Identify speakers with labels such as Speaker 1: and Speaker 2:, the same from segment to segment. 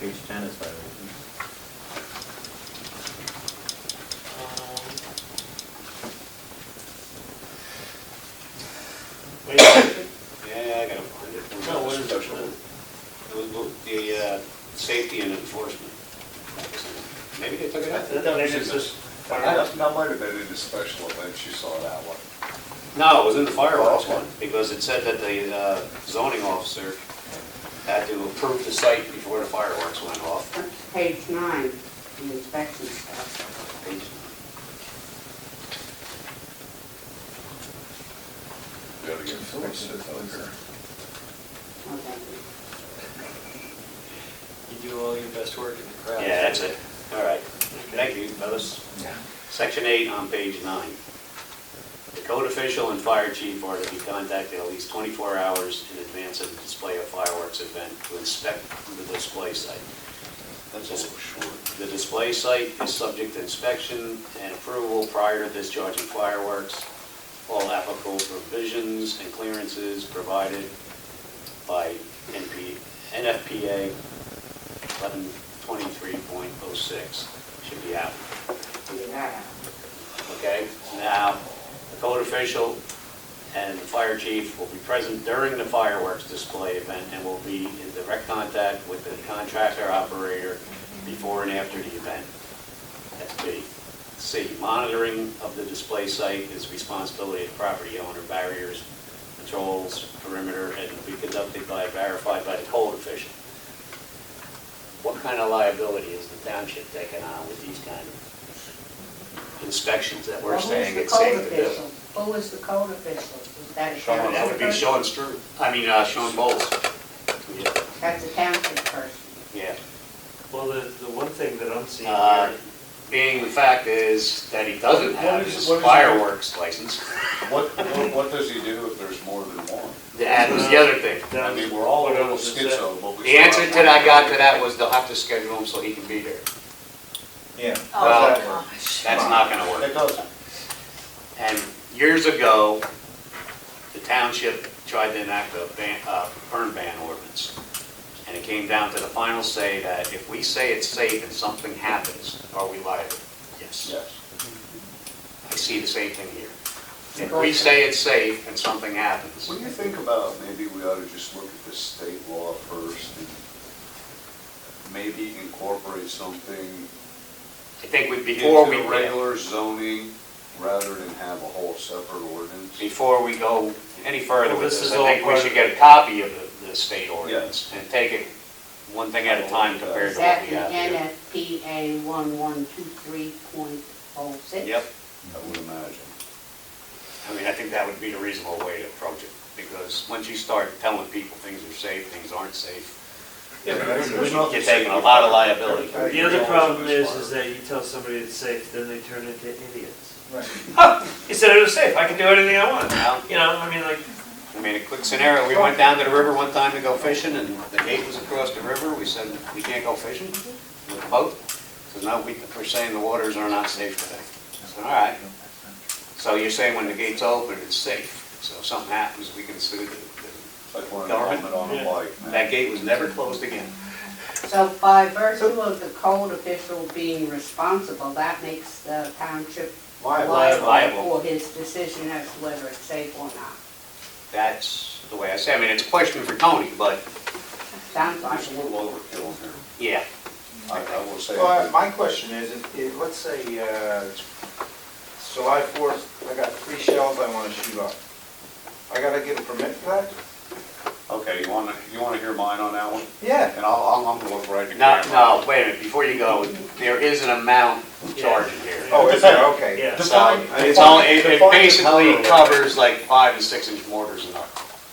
Speaker 1: Page ten is violations.
Speaker 2: Wait, a
Speaker 3: Yeah, I gotta find it.
Speaker 2: No, what is it?
Speaker 3: Special. was The, uh, safety and enforcement. Maybe they took it out.
Speaker 2: second. no, they just, just fired
Speaker 4: I
Speaker 2: up.
Speaker 4: don't, that might have been in the special events you saw that one.
Speaker 3: No, it was in the fireworks one, because it said that the uh, zoning officer had to approve the site before the fireworks went off.
Speaker 5: That's page nine, the inspection stuff.
Speaker 4: Gotta get fixed it later.
Speaker 5: Okay.
Speaker 1: You do all your best work in the crowd.
Speaker 3: Yeah, that's it. All right. Thank you, fellas. Section eight on page nine. The code official and fire chief are to be contacted at least 24 hours in advance of the display of fireworks event to inspect the display site.
Speaker 4: That's a little short.
Speaker 3: The display site is subject to inspection and approval prior to discharging fireworks. All applicable provisions and clearances provided by NP NFPA 1123.06 should be out,
Speaker 5: Figure that out.
Speaker 3: okay? Now, the code official and the fire chief will be present during the fireworks display event and will be in direct contact with the contractor operator before and after the event. That's B. C, monitoring of the display site is responsibility of property owner, barriers, controls, perimeter, and will be conducted by, verified by the code official. What kind of liability is the township taking on with these kind of inspections that we're
Speaker 5: Well, who's
Speaker 3: saying
Speaker 5: the
Speaker 3: it's
Speaker 5: code
Speaker 3: safe to do?
Speaker 5: official? Who is the code official? Is that a
Speaker 3: Sean,
Speaker 5: township
Speaker 3: that would be
Speaker 5: person?
Speaker 3: Sean Stru, I mean, uh, Sean Bowles. Yeah,
Speaker 5: That's a township person.
Speaker 3: Yeah.
Speaker 2: Well, the, the one thing that I'm seeing
Speaker 3: Uh,
Speaker 2: here,
Speaker 3: Being the fact is that he doesn't
Speaker 4: What
Speaker 3: have
Speaker 4: is-
Speaker 3: his
Speaker 4: what is-
Speaker 3: fireworks license.
Speaker 4: What, what, what does he do if there's more than one?
Speaker 3: That was the other thing.
Speaker 2: that
Speaker 4: I
Speaker 2: was-
Speaker 4: mean, we're all a
Speaker 2: what I
Speaker 4: little
Speaker 2: was just saying.
Speaker 4: schizo, but we.
Speaker 3: The answer that I got to that was they'll have to schedule him so he can be there.
Speaker 1: Yeah.
Speaker 3: Well,
Speaker 6: gosh.
Speaker 3: That's not gonna
Speaker 4: It
Speaker 3: work.
Speaker 4: doesn't.
Speaker 3: And years ago, the township tried to enact a ban, uh, burn ban ordinance. And it came down to the final say that if we say it's safe and something happens, are we liable? Yes.
Speaker 4: Yes.
Speaker 3: I see the same thing here. If we say it's safe and something happens,
Speaker 4: What do you think about, maybe we ought to just look at the state law first and maybe incorporate something
Speaker 3: I think we, before we,
Speaker 4: into regular zoning rather than have a whole separate ordinance?
Speaker 3: before we go any further
Speaker 2: Well,
Speaker 3: with
Speaker 2: this
Speaker 3: this,
Speaker 2: is
Speaker 3: I
Speaker 2: all
Speaker 3: think we
Speaker 2: part
Speaker 3: should
Speaker 2: of-
Speaker 3: get a copy of the, the state ordinance and take it one thing at a time compared
Speaker 5: Is
Speaker 3: to what
Speaker 5: that
Speaker 3: we have
Speaker 5: the
Speaker 3: here.
Speaker 5: NFPA 1123.06?
Speaker 3: Yep,
Speaker 4: I would imagine.
Speaker 3: I mean, I think that would be the reasonable way to approach it, because once you start telling people things are safe, things aren't safe,
Speaker 2: Yeah, but
Speaker 4: There's
Speaker 3: you're
Speaker 4: nothing
Speaker 3: taking a
Speaker 4: safe.
Speaker 3: lot of liability.
Speaker 2: The other problem is, is that you tell somebody it's safe, then they turn into idiots. He said it was safe, I can do anything I want,
Speaker 3: Now,
Speaker 2: you know, I mean, like,
Speaker 3: I mean, a quick scenario, we went down to the river one time to go fishing, and the gate was across the river, we said, we can't go fishing with the boat, so no, we, we're saying the waters are not safe today. I said, all right, so you're saying when the gate's open, it's safe, so if something happens, we can sue the,
Speaker 4: It's like wearing a helmet on a bike,
Speaker 3: the-
Speaker 4: man.
Speaker 3: that gate was never closed again.
Speaker 5: So by virtue of the code official being responsible, that makes the township liable
Speaker 3: Liable.
Speaker 5: for his decision as to whether it's safe or not.
Speaker 3: That's the way I say, it. I mean, it's a question for Tony, but,
Speaker 5: Sounds
Speaker 4: There's
Speaker 5: like
Speaker 4: a
Speaker 5: it.
Speaker 4: little overkill here.
Speaker 3: yeah,
Speaker 4: I, I will say.
Speaker 1: Well, my question is, if- if, let's say, uh, July fourth, I got three shells I wanna shoot off. I gotta get a permit for that?
Speaker 4: Okay, you want to, you want to hear mine on that one?
Speaker 1: Yeah.
Speaker 4: And I'll, I'll- I'm going to look right at the
Speaker 3: no,
Speaker 4: camera.
Speaker 3: no, wait a minute, before you go, there is an amount charged here.
Speaker 1: Oh, is there, okay.
Speaker 2: yeah.
Speaker 3: So, it's only, it it basically covers like five and six inch mortars and up.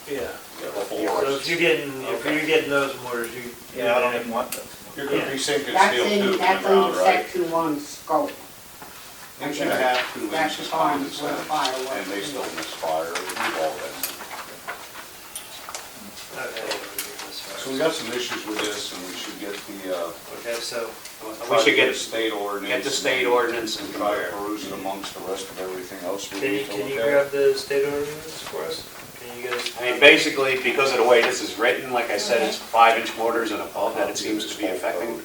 Speaker 2: Yeah. So if
Speaker 3: Yours.
Speaker 2: you're getting, if
Speaker 1: Okay.
Speaker 2: you're getting those mortars, you.
Speaker 1: Yeah, I don't even want them.
Speaker 4: You're going to be sinking
Speaker 5: That's
Speaker 4: steel tube
Speaker 5: in,
Speaker 4: in the
Speaker 5: that's under
Speaker 4: ground, right?
Speaker 5: section one scope.
Speaker 4: Inch and a half, two
Speaker 5: That's
Speaker 4: inches
Speaker 5: fine,
Speaker 4: condensate,
Speaker 5: we're fireworks.
Speaker 4: and they still misfire, we've all that.
Speaker 2: Okay.
Speaker 4: So we got some issues with this, and we should get the, uh.
Speaker 2: Okay, so, uh,
Speaker 3: We should
Speaker 4: the
Speaker 3: get,
Speaker 4: State ordinance.
Speaker 3: get the state ordinance and
Speaker 4: And try to
Speaker 3: compare.
Speaker 4: peruse it amongst the rest of everything else we
Speaker 2: can you,
Speaker 4: need to
Speaker 2: can
Speaker 4: look
Speaker 2: you
Speaker 4: at.
Speaker 2: grab the state ordinance for us? Can you guys.
Speaker 3: I mean, basically, because of the way this is written, like I said, it's five-inch mortars and above that it seems to be affecting.